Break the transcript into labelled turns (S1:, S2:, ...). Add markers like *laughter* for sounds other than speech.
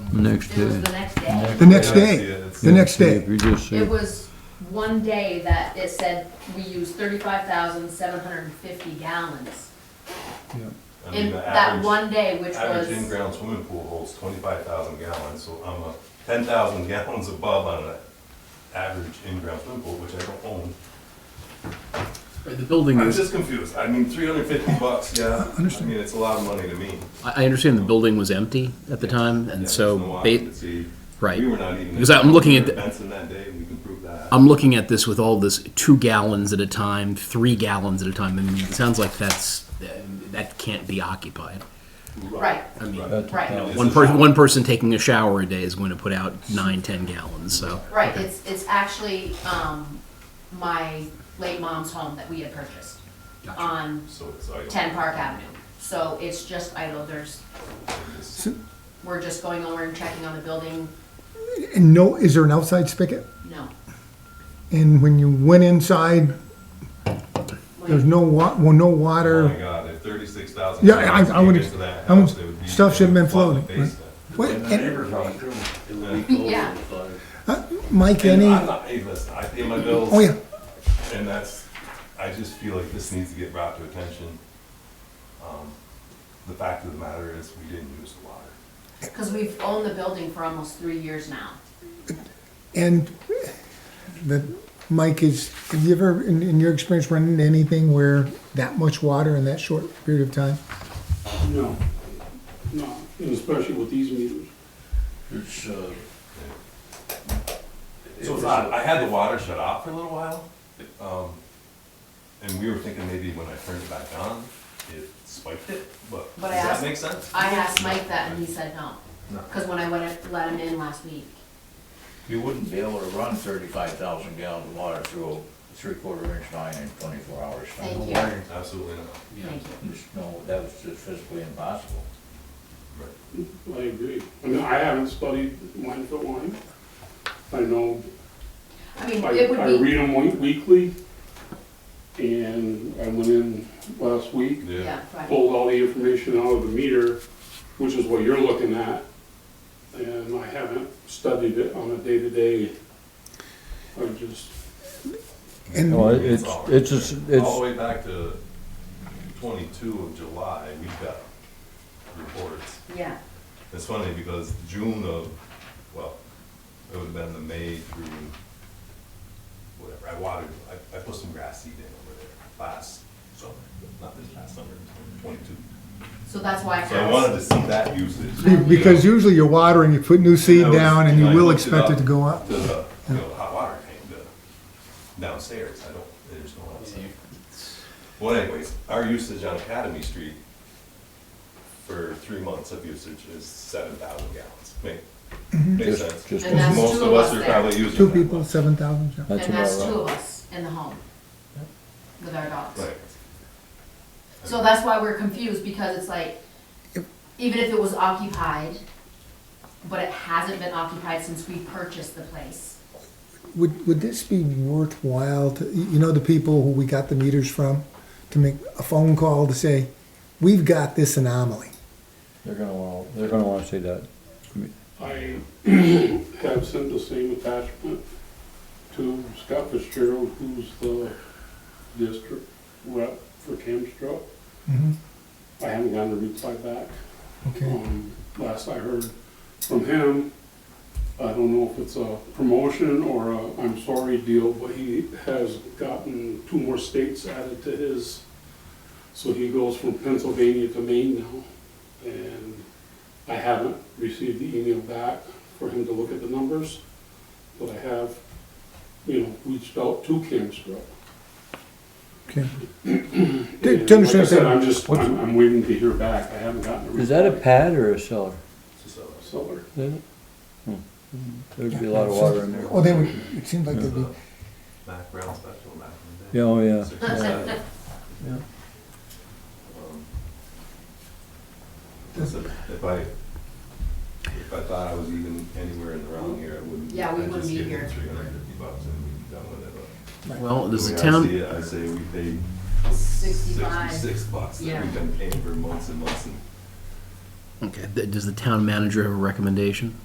S1: Next
S2: It was
S1: day.
S2: the next day.
S3: The next
S4: Yeah, I see
S3: day.
S4: it. It's-
S3: The next
S1: See,
S3: day.
S1: If you just
S2: It
S1: say,
S2: was one day that it said we used thirty-five thousand seven hundred and fifty gallons.
S4: I mean,
S2: In
S4: the
S2: that
S4: average-
S2: one day, which
S4: Average
S2: was,
S4: in-ground swimming pool holds twenty-five thousand gallons, so I'm a ten thousand *laughs* gallons above on an average in-ground swimming pool, which I don't own.
S5: Right, The building
S4: I'm
S5: is,
S4: just confused. I mean, three hundred
S3: *laughs*
S4: fifty bucks, yeah. I
S3: Understand.
S4: mean, it's a lot of money to me.
S5: I I understand the building was empty at the time,
S4: Yeah,
S5: and
S4: there's no
S5: so, ba-
S4: occupancy.
S5: right.
S4: We were not even.
S5: Because I'm looking at
S4: we were
S5: the-
S4: Benson that day, we can prove
S3: Um,
S4: that.
S5: I'm looking at this with all this two gallons at a time, three gallons at a time, and it sounds like that's, that can't be occupied.
S2: right,
S5: I
S3: Uh,
S5: mean,
S2: right,
S4: It's
S5: One
S4: a
S5: person,
S4: shower.
S5: one person taking a shower a day is going to put out nine, ten gallons. So,
S2: right, it's, it's actually, um, my late mom's home that we had purchased
S5: Gotcha.
S2: on
S4: So it's like. oh
S2: ten Park Avenue. So it's just idle, there's,
S4: It's-
S3: So-
S2: we're just going over and checking on the building,
S3: And no, is there an outside spigot?
S2: no.
S3: And when you went inside,
S2: Wait,
S3: there's no wa, well, no
S4: Oh my
S3: water.
S4: god, if thirty-six thousand.
S3: Yeah, I- I would- I would- stuff should've been floating, right? What-
S6: And the
S3: and-
S6: neighbors on too. It would be close
S2: Yeah.
S6: to five.
S3: Mike,
S4: And
S3: any,
S4: I'm not, hey, listen, I pay my bills.
S3: oh yeah,
S4: And that's, I just feel like this needs to get brought to attention. Um, The fact of the matter is, we didn't use the water.
S2: Cause we've owned the building for almost three years now.
S3: and the, Mike is, have you ever, in, in your experience, run into anything where that much water in that short period of time?
S7: No, no, and especially with these meters.
S6: It's, uh. it
S4: So
S6: was
S4: it's odd. I had the water shut off for a little while, um, and we were thinking maybe when I turned it back on, it spiked it, but
S2: But
S4: does
S2: I
S4: that
S2: asked-
S4: make sense?
S2: I asked Mike that and he said no.
S6: No.
S2: Cause when I went, and let him in last week,
S6: You wouldn't be able to run thirty-five thousand gallons of water through a three-quarter inch line in twenty-four hours.
S2: thank you,
S4: Absolutely not.
S2: thank you.
S6: Just no, that was just physically impossible.
S7: I agree. I mean, I haven't studied line for line. I know,
S2: I mean,
S7: I,
S2: it
S7: I
S2: would be,
S7: read them weekly, and I went in last week,
S2: yeah, right,
S7: pulled all the information out of the meter, which is what you're looking at, and I haven't studied it on a day-to-day. I just,
S3: And-
S4: Well,
S3: Well,
S4: it- it's- it's
S1: just,
S4: All the way back to twenty-two of July, we got reports.
S2: yeah.
S4: It's funny because June of, well, it would have been the May through whatever, I watered, I, I put some grass seed in over there last summer, not this past summer, twenty-two.
S2: So that's why I
S4: So I
S2: asked,
S4: wanted to see that usage.
S3: Be- Because usually you're watering, you put new seed
S4: And I was-
S3: down and you
S4: I
S3: will
S4: hooked
S3: expect it to go up.
S4: To the, you know, hot water tank, the downstairs, I don't, there's no one outside. Well anyways, our usage on Academy Street for three months of usage is seven thousand gallons. Make, makes sense.
S6: just
S2: And that's
S4: Most
S2: two
S4: of
S2: of
S4: us
S2: us
S4: are
S2: there.
S4: probably using
S3: Mm-hmm. Two
S4: that
S3: people,
S4: much.
S3: seven thousand.
S2: and that's two of us in the home with our dogs.
S4: Right.
S2: So that's why we're confused, because it's like, even if it was occupied, but it hasn't been occupied since we purchased the place.
S3: Would, would this be worthwhile to, you know, the people who we got the meters from, to make a phone call to say, we've got this anomaly?
S8: They're gonna want, they're gonna wanna see that.
S7: I *clears throat* have sent the same attachment to Scott Fitzgerald, who's the district rep for Camstrop.
S3: Mhm.
S7: I haven't gotten a reply back.
S3: Okay,
S7: Um, Last I heard from him, I don't know if it's a promotion or a I'm sorry deal, but he has gotten two more states added to his. So he goes from Pennsylvania to Maine now. And I haven't received the email back for him to look at the numbers, but I have, you know, reached out to Camstra.
S3: okay.
S7: And
S3: To- To
S7: Like I
S3: understand,
S7: said, I'm
S3: that-
S7: just, I'm I'm waiting to hear back. I haven't gotten a reply.
S8: Is that a pad or a cellar?
S4: So-
S7: Seller.
S8: Is it? Hmm. There'd be a lot of water in there.
S3: oh, they would, it seems like they'd be,
S4: Mac Brown special back in the
S8: Yeah,
S4: day.
S8: oh, yeah.
S4: Six
S8: yeah.
S2: *laughs*
S4: percent.
S8: Yeah.
S4: Um, listen, If I, if I thought I was even anywhere in the wrong here, I wouldn't.
S2: Yeah, we wouldn't be here.
S4: Three hundred and fifty bucks and we'd be done with it. but
S5: well,
S4: the
S5: does
S4: way
S5: the
S4: Oh, I see
S5: town,
S4: it, I say we paid
S2: Sixty-five.
S4: sixty-six bucks that
S2: Yeah.
S4: we've been paying for months and months and
S5: okay, th- does the town manager have a recommendation?